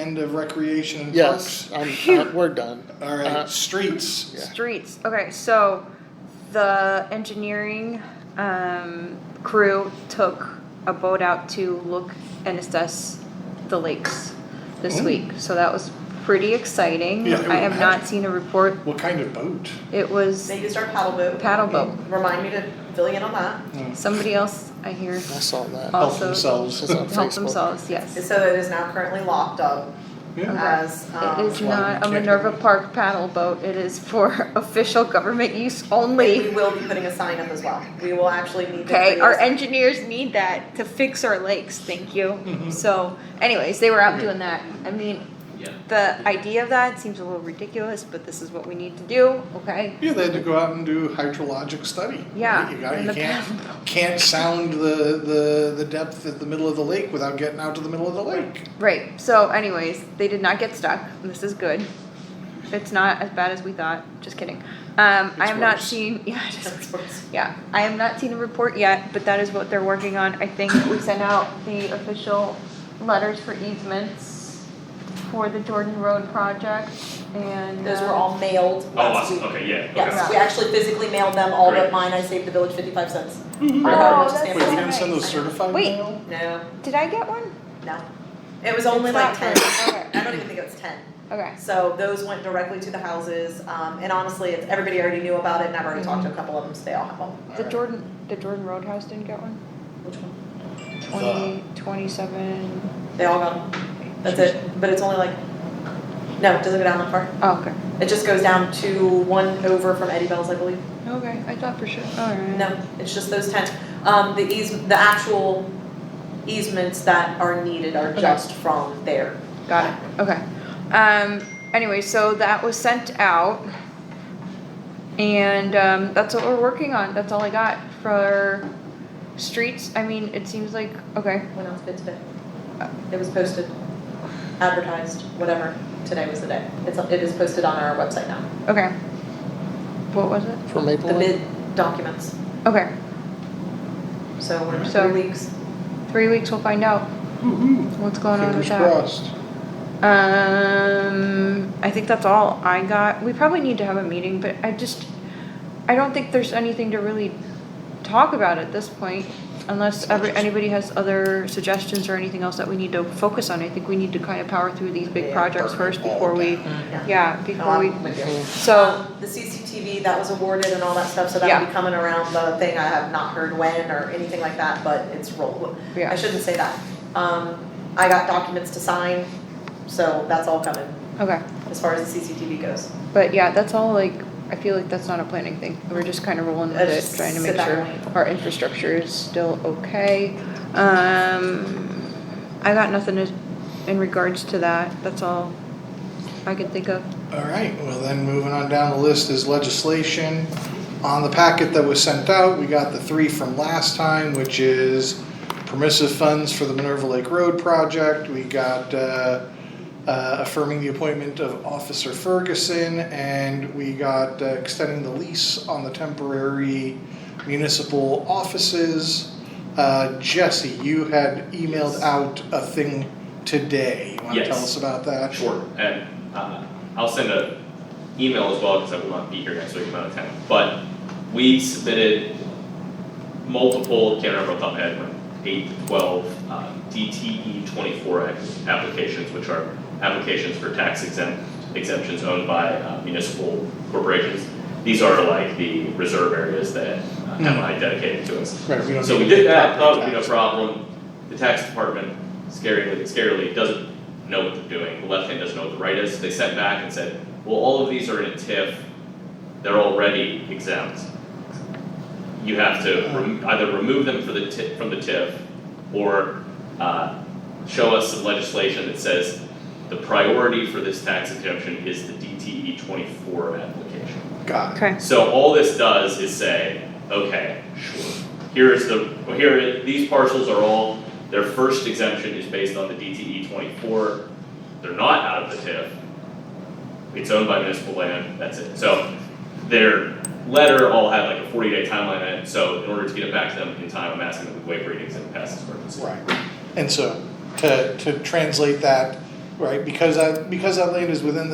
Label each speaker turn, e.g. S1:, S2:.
S1: End of recreation and
S2: Yes,
S1: parks.
S2: I'm, uh, we're done.
S1: All right,
S2: Uh,
S1: streets.
S2: Yeah.
S3: Streets. Okay, so the engineering um, crew took a boat out to look and assess the lakes this
S1: Oh.
S3: week. So that was pretty exciting.
S1: Yeah, it
S3: I have
S1: was-
S3: not seen a report.
S1: What kind of boat?
S3: It was
S4: They used our paddle boat.
S3: paddle boat.
S4: Remind me to fill you in on that.
S3: Somebody else I hear
S2: I saw that.
S3: Oh.
S1: Help
S3: Also-
S1: themselves.
S2: It's on
S3: help
S2: Facebook.
S3: themselves. Yes.
S4: So it is now currently locked up
S1: yeah.
S4: as, um.
S3: It is
S1: why
S3: not a
S1: we can't-
S3: Minerva Park paddle boat. It is for official government use
S4: We
S3: only.
S4: will be putting a sign up as well. We will actually need to.
S3: Okay, our
S4: create a-
S3: engineers need that to fix our lakes. Thank you.
S1: Mm-hmm.
S3: So, anyways, they were out doing that. I mean,
S5: Yeah.
S3: the idea of that seems a little ridiculous, but this is what we need to do. Okay.
S1: Yeah, they had to go out and do hydrologic study.
S3: Yeah,
S1: You, got,
S3: and
S1: you
S3: the
S1: can't, can't sound the, the, the depth at the middle of the lake without getting out to the middle of the lake.
S3: Right. So, anyways, they did not get stuck. and This is good. It's not as bad as we thought. Just kidding. Um, I
S1: It's
S3: have not
S1: worse.
S3: seen. Yeah. it is Yeah, I have not seen a report yet, but that is what they're working on. I think we sent out the official letters for easements for the Jordan Road project and.
S4: Those were
S3: uh,
S4: all mailed
S5: Oh,
S4: last
S5: awesome.
S4: week.
S5: okay, yeah, okay.
S4: Yes, we actually physically mailed them, all but
S5: Great.
S4: mine, I saved the village fifty-five cents.
S3: Oh,
S4: Just
S3: that's
S1: Wait,
S4: name
S1: we
S4: it.
S1: didn't send those certified
S3: Wait.
S1: mail?
S4: No,
S3: Did I get one?
S4: no. It was only
S3: It's
S4: like
S3: not
S4: ten,
S3: right.
S4: I don't even think it was ten.
S3: Okay.
S4: So those went directly to the houses, um, and honestly, it's, everybody already knew about it, and I've already talked to a couple of them, so they all have them.
S3: The Jordan, the Jordan Road house didn't get one?
S4: Which one?
S3: Twenty, twenty-seven,
S4: They all got them. That's it, but it's only like, no, it doesn't go down that far.
S3: oh, okay.
S4: It just goes down to one over from Eddie Bell's, I believe.
S3: Okay, I thought for sure, alright.
S4: No, it's just those ten. Um, the eas, the actual easements that are needed are
S3: Okay.
S4: just from there.
S3: Got it, okay. Um, anyway, so that was sent out. And, um, that's what we're working on, that's all I got for streets, I mean, it seems like, okay,
S4: When else bid today? It was posted, advertised, whatever. Today was the day. It's, it is posted on our website now.
S3: okay. What was it?
S2: For
S4: The
S2: Maplewood?
S4: bid documents,
S3: Okay,
S4: so we're
S3: So-
S4: three weeks.
S3: three weeks we'll find out
S1: Woo-hoo.
S3: what's going on with
S1: Fingers
S3: Oh, that.
S1: crossed.
S3: Um, I think that's all I got. We probably need to have a meeting, but I just, I don't think there's anything to really talk about at this point. Unless every, anybody has other suggestions or anything else that we need to focus on, I think we need to kind of power through these big
S4: Yeah,
S3: projects
S1: burn
S3: first
S1: it all
S3: before we,
S1: down.
S3: yeah,
S4: No,
S3: before we,
S4: I'm with you.
S3: so,
S4: Um, the CCTV that was awarded and all that stuff, so
S3: Yeah.
S4: that'll be coming around the thing, I have not heard when or anything like that, but it's roll.
S3: Yeah.
S4: I shouldn't say that. Um, I got documents to sign, so that's all coming,
S3: okay.
S4: as far as the CCTV goes.
S3: But yeah, that's all like, I feel like that's not a planning thing. We're just kind of rolling with
S4: Let's
S3: it,
S4: just
S3: trying to
S4: sit
S3: make
S4: back
S3: sure
S4: and
S3: our infrastructure is still okay. Um, I got nothing as- in regards to that. That's all I can think of.
S1: All right, well then, moving on down the list is legislation. On the packet that was sent out, we got the three from last time, which is permissive funds for the Minerva Lake Road project. We got uh, uh, affirming the appointment of Officer Ferguson, and we got uh, extending the lease on the temporary municipal offices. Uh, Jesse, you had emailed out a thing today. You want to
S5: Yes.
S1: tell us about that?
S5: Sure, and uh, I'll send a email as well because I will not be here next week, I'm out of town. But we submitted multiple, can't remember off the top of my head, like eight to twelve uh, DTE twenty-four app- applications, which are applications for tax exempt exemptions owned by uh, municipal corporations. These are like the reserve areas that uh, MI dedicated to us.
S1: Right, we don't
S5: So we
S1: need
S5: did
S1: to-
S5: that, Oh, thought it would be no problem. The tax department, scarily, scarily doesn't know what they're doing. The left hand doesn't know what the right is. They sent back and said, well, all of these are in a TIF. They're already exempt. You have to rem- either remove them for the ti- from the TIF or uh, show us some legislation that says the priority for this tax exemption is the DTE twenty-four application.
S1: Got it.
S3: Okay.
S5: So all this does is say, okay, sure, here is the, well, here, it- these parcels are all, their first exemption is based on the DTE twenty-four. They're not out of the TIF. It's owned by municipal land, that's it. So their letter all had like a forty-day timeline in it, so in order to get it back to them in time, I'm asking that we waive readings and pass this emergency.
S1: Right. And so to, to translate that, right? Because that, because that land is within the